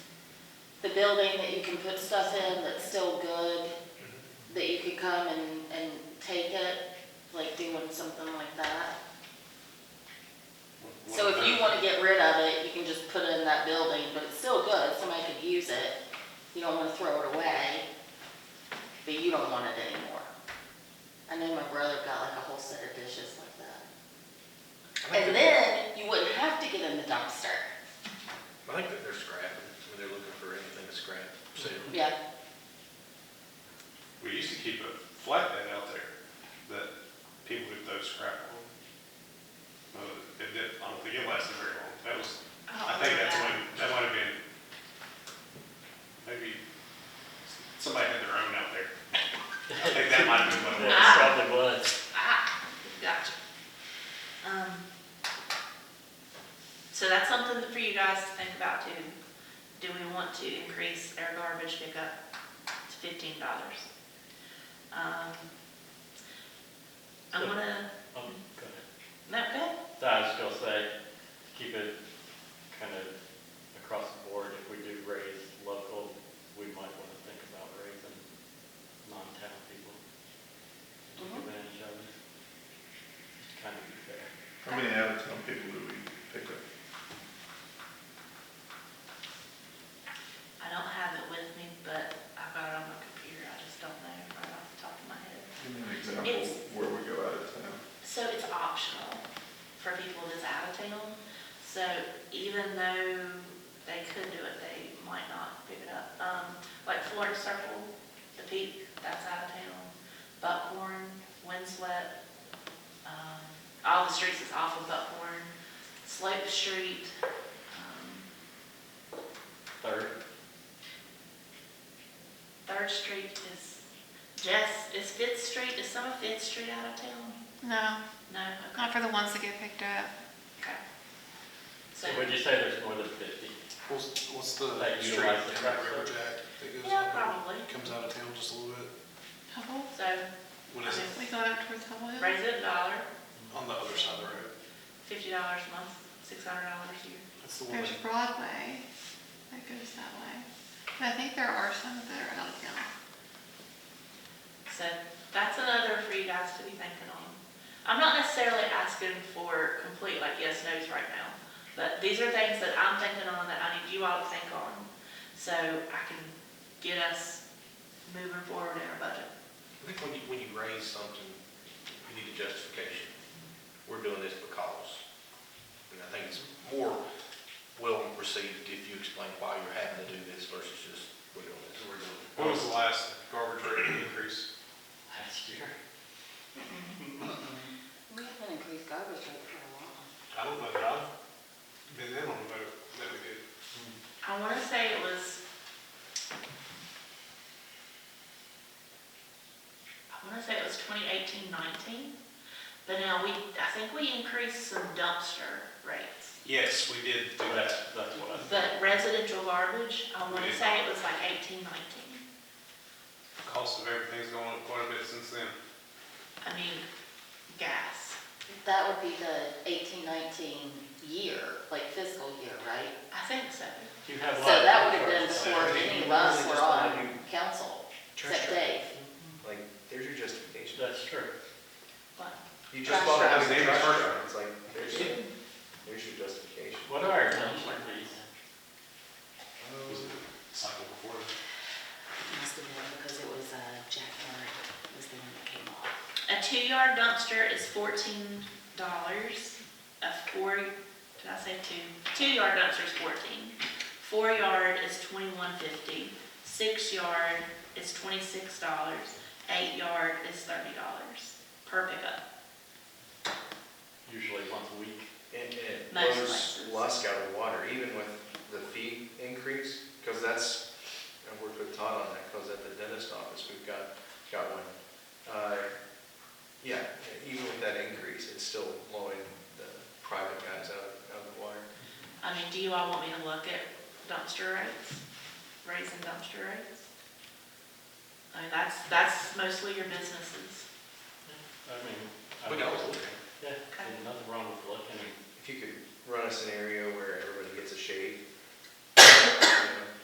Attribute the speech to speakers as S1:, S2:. S1: the building that you can put stuff in that's still good, that you could come and, and take it, like doing something like that. So if you wanna get rid of it, you can just put it in that building, but it's still good, somebody could use it. You don't wanna throw it away, but you don't want it anymore. I know my brother got like a whole set of dishes like that. And then you wouldn't have to get in the dumpster.
S2: I think that they're scrapping, when they're looking for anything to scrap, sale.
S1: Yeah,
S3: We used to keep a flatbed out there that people would throw scrap on. But it did, I don't think it lasted very long. That was, I think that's
S4: Oh,
S3: when, that might have been, maybe somebody had their own out there. I think that might have been what it was.
S5: That probably was.
S4: Ah, gotcha. Um, so that's something for you guys to think about too. Do we want to increase our garbage pickup to fifteen dollars? Um, I'm gonna,
S5: I'm gonna,
S4: no, go ahead.
S5: Oh, I was gonna say, keep it kind of across the board. If we do raise local, we might want to think about raising non-town people. Take
S1: Mhm.
S5: advantage of it. Just kind of be fair.
S6: How many out-of-town people do we pick up?
S4: I don't have it with me, but I've got it on my computer, I just don't know right off the top of my head.
S6: Give me an example
S4: It's-
S6: where we go out of town.
S4: So it's optional for people that's out of town. So even though they could do it, they might not pick it up. Um, like Florida Circle, the peak, that's out of town. Buckhorn, Windswept, um, all the streets is off of Buckhorn. Slope Street, um,
S5: Third,
S4: Third Street is, Jess, is Fifth Street, is some of Fifth Street out of town?
S7: No,
S4: No, okay.
S7: not for the ones that get picked up.
S4: okay. So,
S5: so would you say there's more than fifty?
S2: What's, what's the
S5: Like
S2: street
S5: utilize
S2: down
S5: the
S2: by
S5: truck
S2: River
S5: road.
S2: Jack that goes
S4: yeah,
S2: out,
S4: probably.
S2: comes out of town just a little bit?
S7: Hubble,
S4: So,
S2: What is it,
S7: we go out towards Hubble Hill.
S4: raise it a dollar,
S2: on the other side of the road?
S4: fifty dollars a month, six hundred dollars a year.
S2: That's the one
S7: There's
S2: that,
S7: Broadway that goes that way. But I think there are some that are out of town.
S4: So that's another for you guys to be thinking on. I'm not necessarily asking for complete like yes, no's right now, but these are things that I'm thinking on that I need you all to think on. So I can get us moving forward in our budget.
S2: I think when you, when you raise something, you need a justification. We're doing this because. And I think it's more well received if you explain why you're having to do this versus just, we're doing this, we're doing. it."
S3: When was the last garbage rate increase?
S5: Last year.
S1: we haven't increased garbage rate for a while.
S3: I don't know that I've been in on the vote that we did.
S4: I want to say it was, I want to say it was 2018, 19, but now we, I think we increased some dumpster rates.
S3: Yes, we did do
S5: That's,
S3: that.
S5: that's what I think.
S4: But residential garbage, I want to
S3: Yeah.
S4: say it was like 18, 19.
S3: Cost of everything's gone up quite a bit since then.
S4: I mean, gas.
S1: That would be the eighteen, nineteen year, like fiscal year, right?
S4: I think so.
S5: You have a
S1: So
S5: lot of
S1: that would have been
S5: contracts.
S1: before any of us were on council, except Dave.
S8: Like, there's your justification.
S5: That's true.
S4: But
S8: You
S1: Trash
S8: just bought a
S1: truck.
S8: house in
S3: Name of
S8: trash
S3: truck.
S8: truck. It's like, there's your, there's your justification.
S5: What are our dumpster fees?
S3: Was it cycle before that?
S1: Must have been because it was, uh, Jack Murray was the one that came off.
S4: a two-yard dumpster is $14. A four, did I say two? Two-yard dumpster is 14. Four-yard is 21.50. Six-yard is $26. Eight-yard is $30 per pickup.
S5: Usually once a week.
S8: And it
S4: Most
S8: blows
S4: places.
S8: lusk out of the water, even with the fee increase, because that's, I worked with Todd on that, because at the dentist office, we've got, got one. Uh, Yeah, even with that increase, it's still blowing the private guys out, out of the water.
S4: I mean, do you all want me to look at dumpster rates, raising dumpster rates? I mean, that's, that's mostly your businesses.
S5: I mean. I
S2: We
S5: don't-
S2: can always look at it.
S5: Yeah, there's nothing wrong with looking and
S8: If you could run a scenario where everybody gets a shave, you know,